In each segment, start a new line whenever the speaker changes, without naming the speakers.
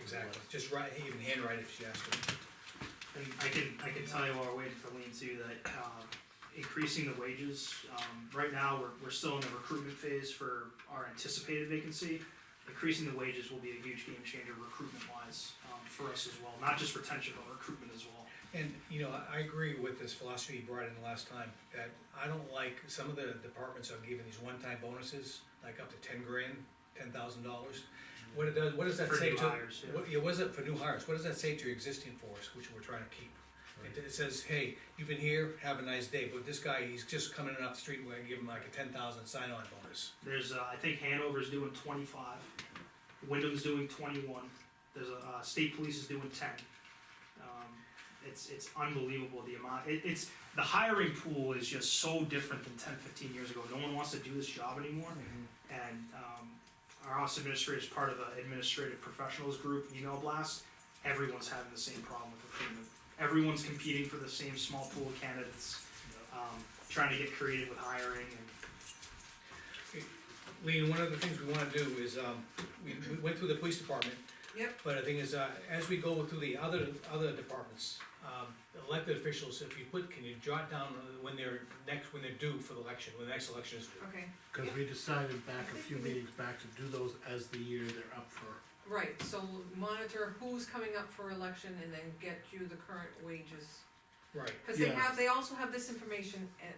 exactly, just write, even handwrite if she has to.
And I can, I can tell you while we're waiting for Lean too, that, um, increasing the wages, um, right now, we're, we're still in the recruitment phase for our anticipated vacancy. Increasing the wages will be a huge game changer recruitment wise, um, for us as well, not just retention, but recruitment as well.
And, you know, I, I agree with this philosophy you brought in the last time, that I don't like, some of the departments are giving these one-time bonuses, like up to ten grand, ten thousand dollars. What it does, what does that
For
say
new
to?
hires, yeah.
what- what is it for new hires, what does that say to your existing force, which we're trying to keep? It, it says, hey, you've been here, have a nice day, but this guy, he's just coming in off the street, we're gonna give him like a ten thousand sign-on bonus.
There's, uh, I think Hanover's doing twenty-five, Wyndham's doing twenty-one, there's, a- uh, state police is doing ten. Um, It's, it's unbelievable the amount, it, it's, the hiring pool is just so different than 10, 15 years ago, no one wants to do this job anymore.
Mm-hmm.
And, um, our office administrator is part of the administrative professionals group email blast, everyone's having the same problem with recruitment. Everyone's competing for the same small pool of candidates, um, trying to get creative with hiring and
Lean, one of the things we wanna do is, um, we, we went through the police department.
Yep.
But the thing is, uh, as we go through the other, other departments, um, elected officials, if you put, can you jot down uh, when they're next, when they're due for the election, when the next election is due?
Okay,
Cause we decided back a few meetings back to do those as the year they're up for.
right, so monitor who's coming up for election and then get you the current wages.
Right,
Cause they
Yeah.
have, they also have this information at,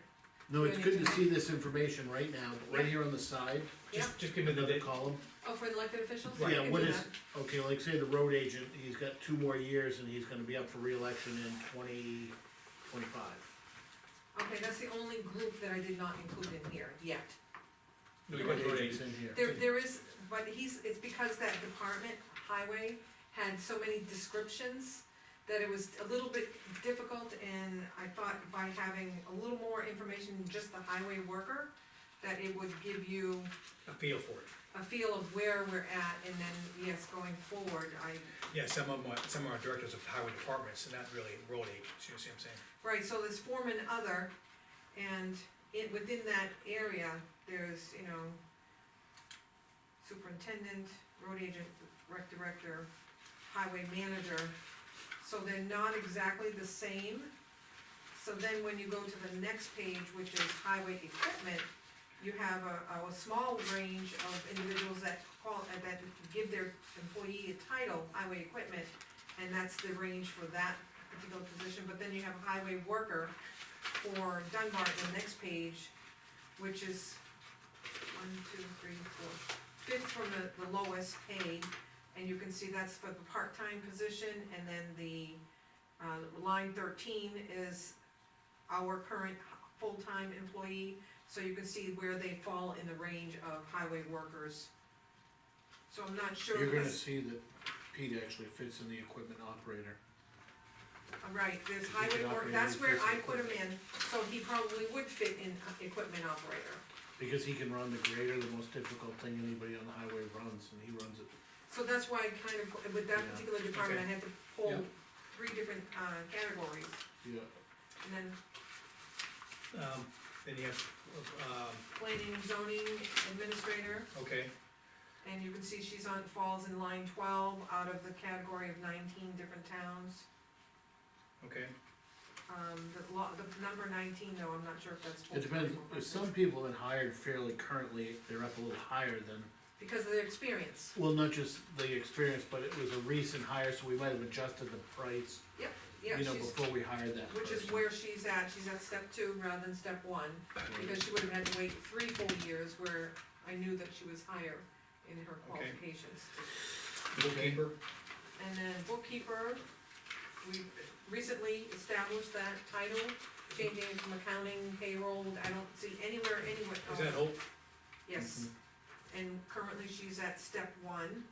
No, it's good to see this information right now, but right here on the side,
just, just give me the
another
date,
column.
oh, for elected officials? You
Yeah,
can
what
do
is,
that.
okay, like say the road agent, he's got two more years and he's gonna be up for reelection in twenty twenty-five.
Okay, that's the only group that I did not include in here yet.
we got the date.
It's in here.
There, there is, but he's, it's because that department, highway, had so many descriptions that it was a little bit difficult, and I thought by having a little more information than just the highway worker, that it would give you
a feel for it.
a feel of where we're at, and then, yes, going forward, I,
Yeah, some of my, some of our directors of highway departments, and not really road agents, you see what I'm saying?
right, so there's form and other, and it, within that area, there's, you know, superintendent, road agent, rec director, highway manager, so they're not exactly the same. So then when you go to the next page, which is highway equipment, you have a, a small range of individuals that call, uh, that give their employee a title, highway equipment, and that's the range for that particular position, but then you have highway worker for Dunbar in the next page, which is one, two, three, four, fifth from the, the lowest paid, and you can see that's for the part-time position, and then the, uh, line thirteen is our current full-time employee, so you can see where they fall in the range of highway workers. So I'm not sure.
You're gonna
this-
see that Pete actually fits in the equipment operator.
All Right, there's
He
highway
could
work,
operate
that's
any
where
piece of
I put him in, so he probably would fit in uh, equipment operator.
Because he can run the grader, the most difficult thing anybody on the highway runs, and he runs it.
So that's why I kind of, put- with that
Yeah,
particular department, I had to pull
Yeah.
three different, uh, categories,
Yeah,
and then
Um, then you have, um,
planning, zoning, administrator,
okay,
and you can see she's on, falls in line twelve out of the category of nineteen different towns.
okay,
Um, the law, the number nineteen though, I'm not sure if that's.
it depends,
full-time or
if
part-time.
some people that hired fairly currently, they're up a little higher than
Because of their experience,
Well, not just the experience, but it was a recent hire, so we might have adjusted the price,
yeah,
you know,
she's,
before we hired that
which is
person.
where she's at, she's at step two rather than step one. because she would have had to wait three full years where I knew that she was higher in her
Okay.
qualifications.
bookkeeper,
And then bookkeeper, we recently established that title, changing it from accounting, payroll, I don't see anywhere, anywhere. oh,
is that Hope?
Yes, and currently she's at step one,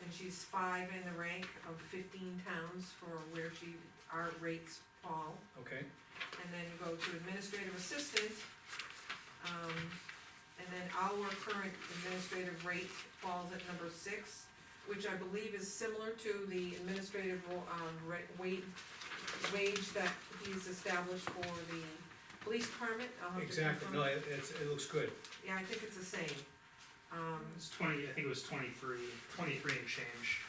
and she's five in the rank of fifteen towns for where she, our rates fall.
Okay,
and then you go to administrative assistant. Um, and then our current administrative rate falls at number six, which I believe is similar to the administrative, ro- um, ra- wage, wage that he's established for the police department. I'll have to
exactly, no,
confirm.
it, it's, it looks good.
Yeah, I think it's the same. Um,
It's twenty, I think it was 23, 23 and change.